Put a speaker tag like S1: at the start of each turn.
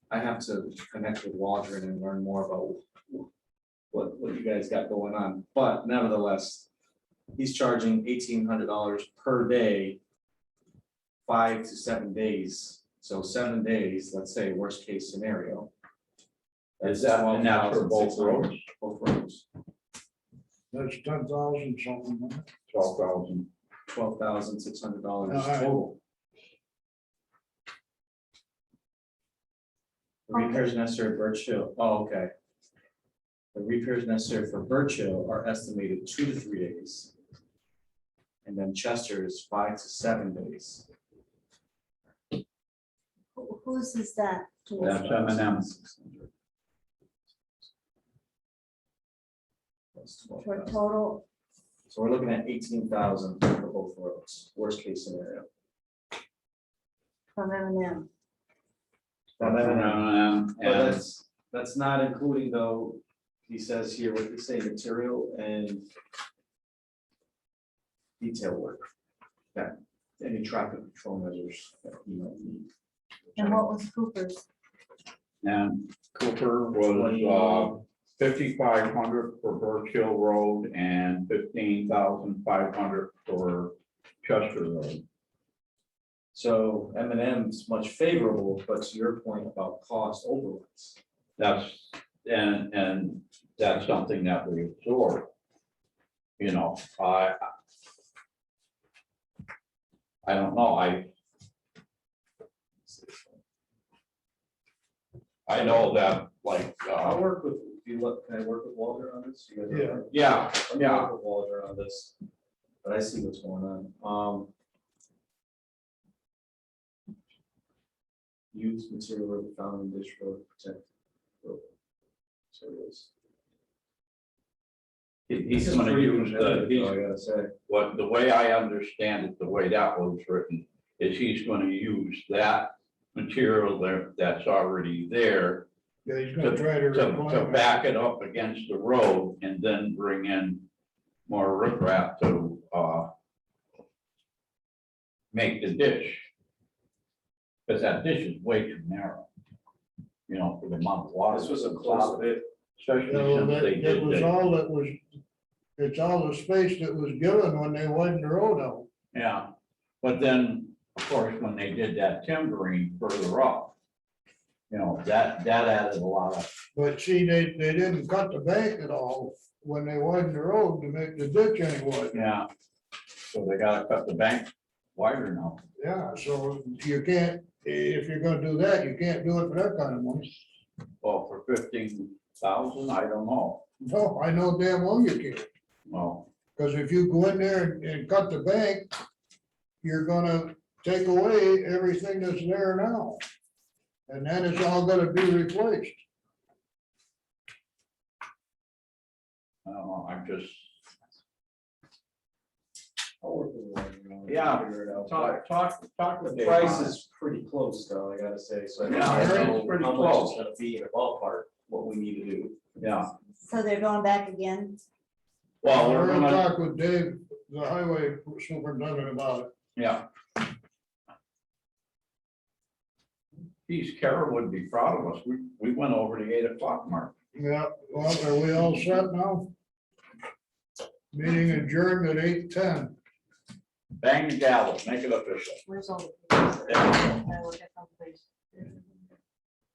S1: I have to connect with Waldron and learn more about what, what you guys got going on, but nevertheless, he's charging eighteen hundred dollars per day, five to seven days, so seven days, let's say worst case scenario.
S2: Is that one now for both roads?
S1: Both roads,
S3: That's ten thousand something. huh?
S2: Twelve thousand.
S1: twelve thousand six hundred dollars
S3: All right.
S1: total. The repairs necessary at Birch Hill, oh, okay. The repairs necessary for Birch Hill are estimated two to three days. And then Chester is five to seven days.
S4: Who- Whose is that?
S2: That's M and M.
S1: That's
S4: For
S1: 12,000.
S4: total,
S1: So we're looking at eighteen thousand for both roads, worst case scenario.
S4: from M and M.
S1: From M
S3: uh,
S1: and M. But
S2: uh, And
S1: that's, that's not including though, he says here, what they say, material and detail work, that, any traffic control measures that you might need.
S4: And what was Cooper's?
S2: and Cooper was uh, fifty-five hundred for Birchill Road and fifteen thousand five hundred for Chester Road.
S1: So M and M's much favorable, but to your point about cost overruns.
S2: That's, and, and that's something that we absorb. You know, I. I don't know, I. I know that, like,
S1: I'll
S2: uh,
S1: work with, do you look, can I work with Walter on this? You guys are-
S3: Yeah.
S2: yeah,
S1: I'm
S2: yeah,
S1: not with Walter on this, but I see what's going on, um. Use material of the found in dish road protect. road materials.
S2: he- he's
S1: Just
S2: gonna
S1: three
S2: use
S1: of them,
S2: the,
S1: that's all I
S2: he's-
S1: gotta say,
S2: what, the way I understand it, the way that was written, is he's gonna use that material there, that's already there.
S3: Yeah, he's gonna try to.
S2: to,
S3: replace
S2: to
S3: it.
S2: back it up against the road and then bring in more riprap to, uh, make the ditch. Cause that ditch is way too narrow, you know, for the amount of water.
S1: this was a close bit,
S2: Especially
S3: No,
S2: since they
S3: that, that
S2: did
S3: was
S2: the,
S3: all that was, it's all the space that was given when they widened the road out.
S2: yeah, but then, of course, when they did that timbering further up, you know, that, that added a lot of,
S3: But see, they, they didn't cut the bank at all when they widened the road to make the ditch anyway.
S2: yeah. So they gotta cut the bank wider now.
S3: Yeah, so you can't, if you're gonna do that, you can't do it for that kind of money.
S2: Well, for fifteen thousand, I don't know,
S3: No, I know damn well you can't.
S2: well,
S3: Because if you go in there and- and cut the bank, you're gonna take away everything that's there now. And then it's all gonna be replaced.
S2: I don't know, I'm just.
S1: I'll work with Walter on it,
S2: Yeah,
S1: figure it out.
S2: Talk, talk, talk with
S1: The
S2: Dave.
S1: price
S2: on it.
S1: is pretty close though, I gotta say, so. I
S2: Yeah,
S1: don't
S2: I think
S1: know
S2: it's pretty
S1: How much it's
S2: close.
S1: gonna be in a ballpark, what we need to do.
S2: Yeah,
S4: So they're going back again?
S2: well, we're gonna,
S3: Talk with Dave, the highway superintendent about it.
S2: yeah. Geez, Kara would be proud of us, we, we went over the eight o'clock mark.
S3: Yeah, well, are we all set now? Meeting adjourned at eight ten.
S2: Bang the gavel, make it official.
S4: Where's all the?
S2: Yeah.
S4: I will get them, please.